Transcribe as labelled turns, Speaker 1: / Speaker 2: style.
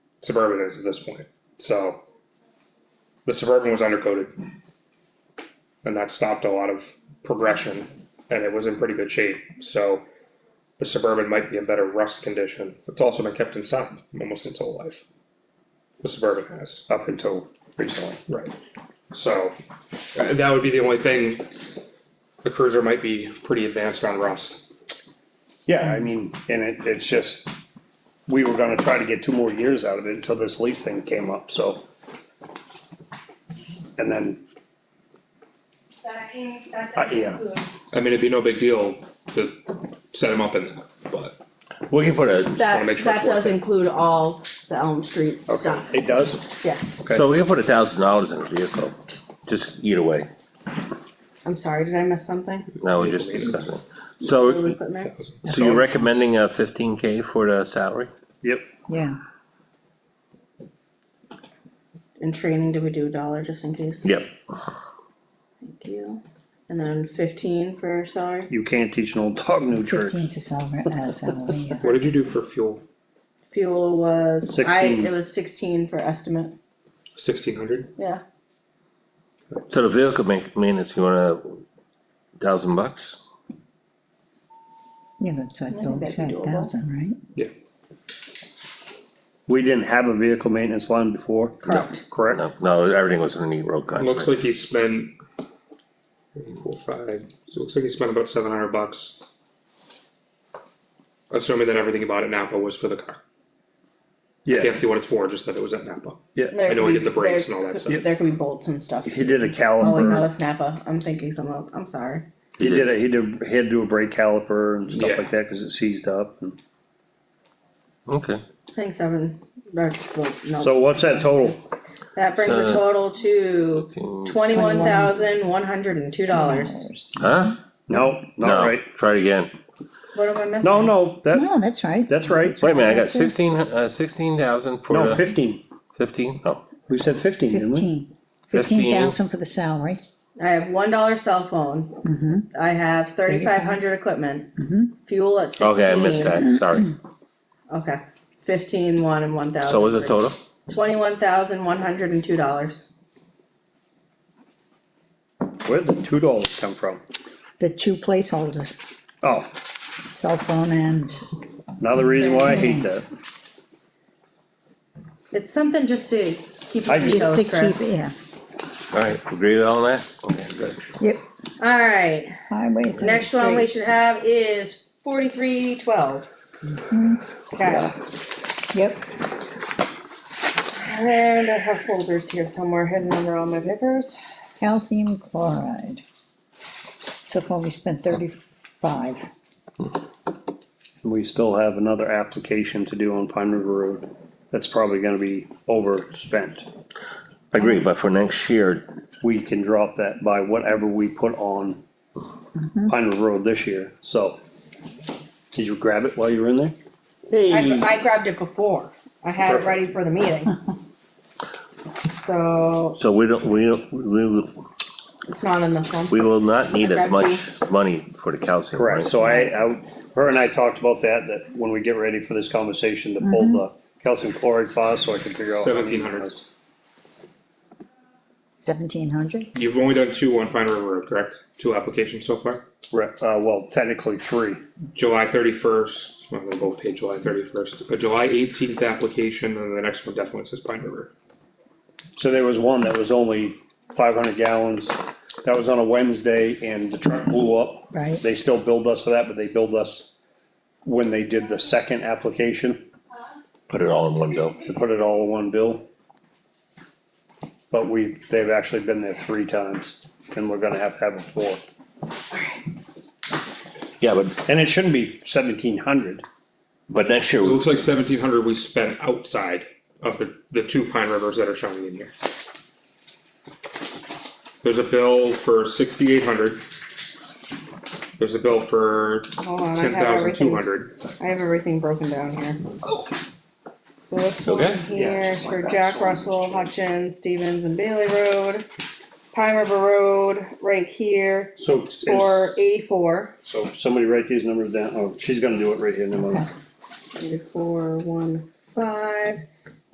Speaker 1: Suburban is at this point, so. The Suburban was undercoated. And that stopped a lot of progression and it was in pretty good shape, so. The Suburban might be in better rust condition, it's also been kept inside almost its whole life. The Suburban has up until recently, right, so uh, that would be the only thing. The Cruiser might be pretty advanced on rust,
Speaker 2: Yeah, I mean, and it, it's just, we were gonna try to get two more years out of it until this lease thing came up, so. And then,
Speaker 3: That can, that
Speaker 2: Uh,
Speaker 3: does
Speaker 2: yeah.
Speaker 3: include,
Speaker 1: I mean, it'd be no big deal to set him up in that, but.
Speaker 4: We can put a,
Speaker 1: wanna
Speaker 5: That,
Speaker 1: make sure
Speaker 5: that
Speaker 1: it's worth
Speaker 5: does
Speaker 1: it.
Speaker 5: include all the Elm Street stuff,
Speaker 2: it does,
Speaker 5: yeah,
Speaker 1: Okay.
Speaker 4: so we can put a thousand dollars in a vehicle, just either way,
Speaker 5: I'm sorry, did I miss something?
Speaker 4: now we're just discussing.
Speaker 5: Did we
Speaker 4: So,
Speaker 5: put in there?
Speaker 4: so you're recommending a fifteen K for the salary?
Speaker 2: yep,
Speaker 6: Yeah,
Speaker 5: In training, did we do a dollar just in case?
Speaker 4: Yep.
Speaker 5: Thank you, and then fifteen for salary,
Speaker 2: you can't teach an old dog new tricks.
Speaker 6: fifteen for salary, uh, salary, yeah.
Speaker 1: What did you do for fuel?
Speaker 5: fuel was, I,
Speaker 2: 16.
Speaker 5: it was sixteen for estimate,
Speaker 1: Sixteen hundred?
Speaker 5: yeah,
Speaker 4: So the vehicle ma- maintenance, you want a thousand bucks?
Speaker 6: Yeah, that's what
Speaker 5: think
Speaker 6: Bill
Speaker 5: that'd be
Speaker 6: said,
Speaker 5: doable.
Speaker 6: thousand, right?
Speaker 1: Yeah.
Speaker 2: We didn't have a vehicle maintenance line before.
Speaker 5: Correct.
Speaker 2: Correct,
Speaker 4: No, no, everything was in a neat road
Speaker 1: It looks
Speaker 4: contract.
Speaker 1: like he spent. three, Four, five, so it looks like he spent about seven hundred bucks. Assuming that everything about it Napa was for the car,
Speaker 2: yeah,
Speaker 1: can't see what it's for, just that it was at Napa,
Speaker 2: yeah,
Speaker 5: There
Speaker 1: I know we
Speaker 5: could
Speaker 1: did the
Speaker 5: be-
Speaker 1: brakes
Speaker 5: there
Speaker 1: and all that
Speaker 5: could-
Speaker 1: stuff.
Speaker 5: There could be bolts and stuff,
Speaker 2: he did a
Speaker 5: oh wait, no,
Speaker 2: caliper,
Speaker 5: that's Napa, I'm thinking something else, I'm sorry,
Speaker 2: he did a, he did, he had to do a brake caliper and stuff
Speaker 1: Yeah.
Speaker 2: like that, cause it seized up. and-
Speaker 4: Okay,
Speaker 5: thanks, Evan, or, well, no,
Speaker 2: So what's that total?
Speaker 5: that brings the
Speaker 1: uh,
Speaker 4: So-
Speaker 5: total to twenty-one thousand, one hundred and two dollars.
Speaker 4: huh?
Speaker 2: No, not
Speaker 4: No,
Speaker 2: right,
Speaker 4: try it again.
Speaker 5: What am I missing?
Speaker 2: no, no, that,
Speaker 6: No, that's right,
Speaker 2: that's right,
Speaker 4: Wait a minute, I got sixteen, uh, sixteen thousand for
Speaker 2: no,
Speaker 4: the
Speaker 2: fifteen,
Speaker 4: fifteen? Oh,
Speaker 2: we said fifteen, didn't we?
Speaker 6: fifteen. Fifteen thousand for the salary,
Speaker 5: I have one dollar cell phone. I have thirty-five hundred equipment. Fuel at sixteen.
Speaker 4: okay, I missed that, sorry.
Speaker 5: Okay, fifteen, one and one thousand.
Speaker 4: So what's the total?
Speaker 5: Twenty-one thousand, one hundred and two dollars.
Speaker 2: Where'd the two dollars come from?
Speaker 6: the two placeholders,
Speaker 2: Oh,
Speaker 6: cell phone and,
Speaker 2: another reason why I hate that.
Speaker 5: It's something just to keep.
Speaker 2: I
Speaker 5: it
Speaker 2: just-
Speaker 6: just to
Speaker 5: detailed, Chris.
Speaker 6: keep, yeah,
Speaker 4: Alright, agree with all that? Okay, good.
Speaker 6: yep,
Speaker 5: Alright,
Speaker 6: highways and
Speaker 5: next one we should
Speaker 6: streets.
Speaker 5: have is forty-three, twelve. Okay,
Speaker 6: Yep,
Speaker 5: and I have folders here somewhere hidden under all my papers.
Speaker 6: calcium chloride. So far, we spent thirty-five,
Speaker 2: We still have another application to do on Pine River Road. That's probably gonna be overspent.
Speaker 4: I agree, but for next year,
Speaker 2: We can drop that by whatever we put on Pine River Road this year, so. Did you grab it while you were in there?
Speaker 5: I,
Speaker 4: Hmm.
Speaker 2: Hey,
Speaker 5: I grabbed it before, I had it ready for the meeting. So,
Speaker 4: so we don't, we don't, we will,
Speaker 5: it's not in this one,
Speaker 4: we will not need as much money for the calcium, right?
Speaker 2: correct, so I, I, her and I talked about that, that when we get ready for this conversation to pull the calcium chloride file, so I can figure out. how many-
Speaker 1: 1700.
Speaker 6: seventeen hundred,
Speaker 1: You've only done two on Pine River Road, correct? Two applications so far?
Speaker 2: Re- uh, well, technically three.
Speaker 1: July thirty-first, well, they both paid July thirty-first, a July eighteenth application, and the next one definitely says Pine River.
Speaker 2: So there was one that was only five hundred gallons, that was on a Wednesday and the truck blew up.
Speaker 6: Right.
Speaker 2: They still billed us for that, but they billed us when they did the second application,
Speaker 4: Put it all in one bill.
Speaker 2: they put it all in one bill. But we, they've actually been there three times and we're gonna have to have a fourth.
Speaker 4: Yeah, but,
Speaker 2: And it shouldn't be seventeen hundred,
Speaker 4: but next
Speaker 1: It
Speaker 4: year,
Speaker 1: looks like seventeen hundred we spent outside of the, the two Pine Rivers that are showing in here. There's a bill for sixty-eight hundred. There's a bill for
Speaker 5: hold on, Oh, I
Speaker 1: ten
Speaker 5: have
Speaker 1: thousand two
Speaker 5: everything,
Speaker 1: hundred.
Speaker 5: I have everything broken down here. So this
Speaker 4: Okay.
Speaker 5: one here is for Jack Russell, Hutchins, Stevens and Bailey Road, Pine River Road, right here,
Speaker 2: so. is-
Speaker 5: for eighty-four.
Speaker 2: So somebody write these numbers down, oh, she's gonna do it right here in a minute.
Speaker 5: Eighty-four, one, five,